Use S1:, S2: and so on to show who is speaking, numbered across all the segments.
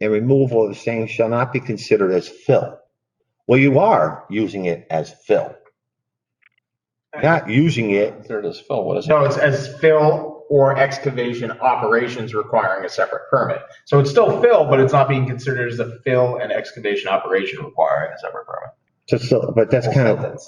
S1: and removal of the same shall not be considered as fill. Well, you are using it as fill. Not using it,
S2: Considered as fill, what is it?
S3: No, it's as fill or excavation operations requiring a separate permit. So it's still fill, but it's not being considered as a fill and excavation operation requiring a separate permit.
S1: to fill, but that's kind of,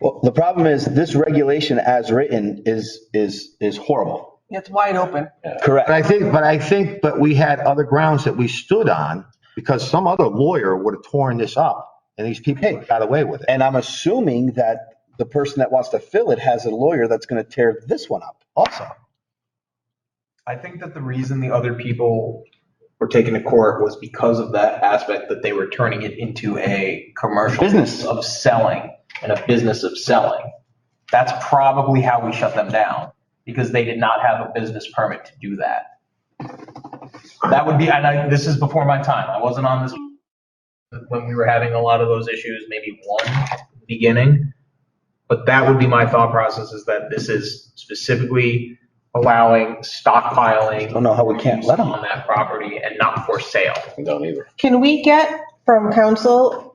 S4: Well, the problem is this regulation as written is, is, is horrible.
S5: It's wide open.
S1: but
S4: Correct.
S1: I think, but I think, but we had other grounds that we stood on because some other lawyer would have torn this up and these people would've got away with it.
S4: And I'm assuming that the person that wants to fill it has a lawyer that's going to tear this one up also.
S3: I think that the reason the other people were taken to court was because of that aspect that they were turning it into a commercial.
S4: Business.
S3: Of selling and a business of selling. That's probably how we shut them down because they did not have a business permit to do that. That would be, and I, this is before my time. I wasn't on this when we were having a lot of those issues, maybe one beginning. But that would be my thought process is that this is specifically allowing stockpiling.
S4: Don't know how we can't let 'em.
S3: On that property and not for sale.
S2: I Don't either.
S5: Can we get from council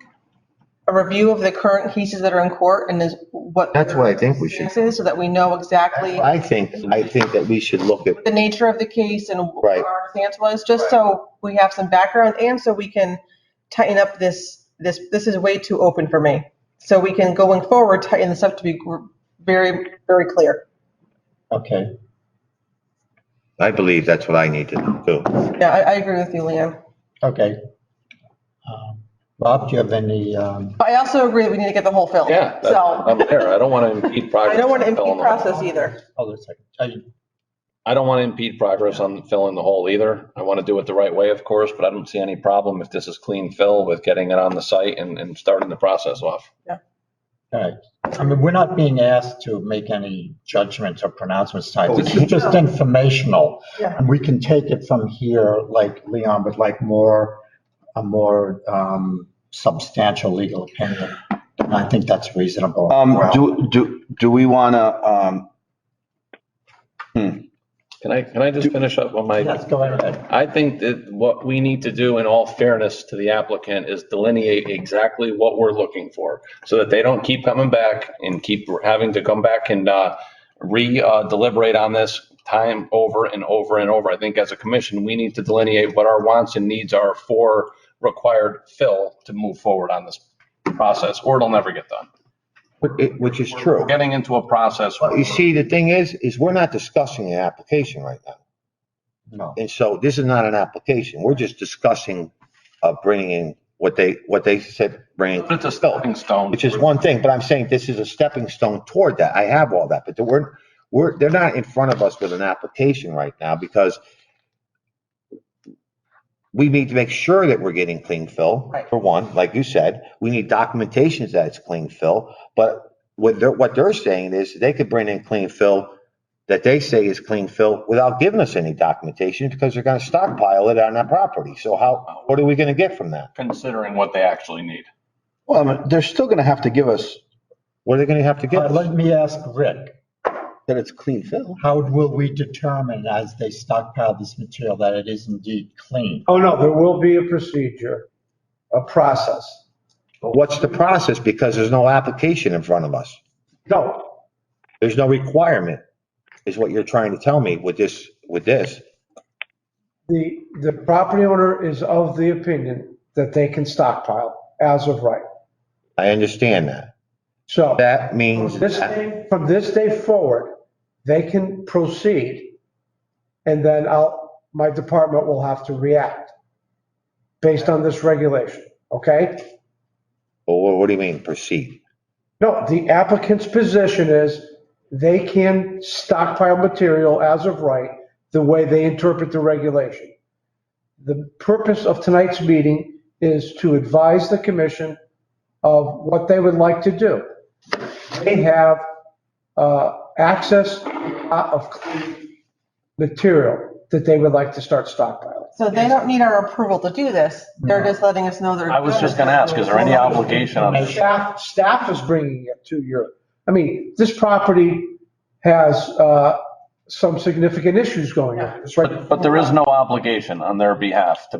S5: a review of the current cases that are in court and is what?
S1: That's what I think we should-
S5: So that we know exactly
S1: I think, I think that we should look at,
S5: the nature of the case and what
S1: Right.
S5: our stance was, just so we have some background and so we can tighten up this, this, this is way too open for me. So we can going forward, tighten this up to be gr- very, very clear.
S4: Okay.
S1: I believe that's what I need to do.
S5: Yeah, I, I agree with you, Leanne.
S6: Okay. Um, Bob, do you have any, um,
S5: But I also agree that we need to get the whole film.
S2: Yeah, that- I'm
S5: So
S2: there. I don't want to impede progress.
S5: I don't want to
S2: on filling
S5: impede
S2: the hole.
S5: process either.
S6: hold on a second. I didn't-
S2: I don't want to impede progress on filling the hole either. I want to do it the right way, of course, but I don't see any problem if this is clean fill with getting it on the site and, and starting the process off.
S6: all right. I mean, we're not being asked to make any judgments or pronouncements tonight. This is
S4: Oh.
S6: just informational.
S5: Yeah.
S6: And we can take it from here, like Leon would like more, a more um, substantial legal opinion. And I think that's reasonable.
S4: Um,
S6: Well,
S4: do, do, do we want to, um,
S2: Can I, can I just finish up on my?
S6: Yes, go ahead. Uh,
S2: I think that what we need to do in all fairness to the applicant is delineate exactly what we're looking for so that they don't keep coming back and keep having to come back and uh, re uh, deliberate on this time over and over and over. I think as a commission, we need to delineate what our wants and needs are for required fill to move forward on this process, or it'll never get done.
S1: Which- it- Which is true.
S2: We're getting into a process.
S1: Well, You see, the thing is, is we're not discussing an application right now.
S6: No.
S1: And so this is not an application. We're just discussing, uh, bringing in what they, what they said, bringing,
S2: But it's a stepping stone.
S1: which is one thing, but I'm saying this is a stepping stone toward that. I have all that, but the word, we're, they're not in front of us with an application right now because we need to make sure that we're getting clean fill,
S5: Right.
S1: for one, like you said. We need documentations that it's clean fill. But what they're, what they're saying is they could bring in clean fill that they say is clean fill without giving us any documentation because they're gonna stockpile it on that property. So how, what are we gonna get from that?
S2: Considering what they actually need.
S4: well, I mean, they're still going to have to give us
S1: What are they gonna have to give
S6: Uh,
S1: us?
S6: Let me ask Rick.
S4: that it's clean fill.
S6: How will we determine as they stockpile this material that it is indeed clean?
S7: Oh, no, there will be a procedure, a process.
S1: What's the process? Because there's no application in front of us.
S7: No,
S1: There's no requirement, is what you're trying to tell me with this, with this.
S7: the, the property owner is of the opinion that they can stockpile as of right.
S1: I understand that.
S7: So
S1: That means
S7: from this
S1: that
S7: day, from this day forward, they can proceed. And then I'll, my department will have to react based on this regulation, okay?
S1: Well, what what do you mean proceed?
S7: No, the applicant's position is they can stockpile material as of right, the way they interpret the regulation. The purpose of tonight's meeting is to advise the commission of what they would like to do. They have uh, access to a lot of clean material that they would like to start stockpiling.
S5: So they don't need our approval to do this. They're just letting us know they're.
S2: I was just going to ask, is there any obligation on this?
S7: Staff, staff is bringing it to your, I mean, this property has uh,
S8: some significant issues going on. It's right
S7: But there is no obligation on their behalf to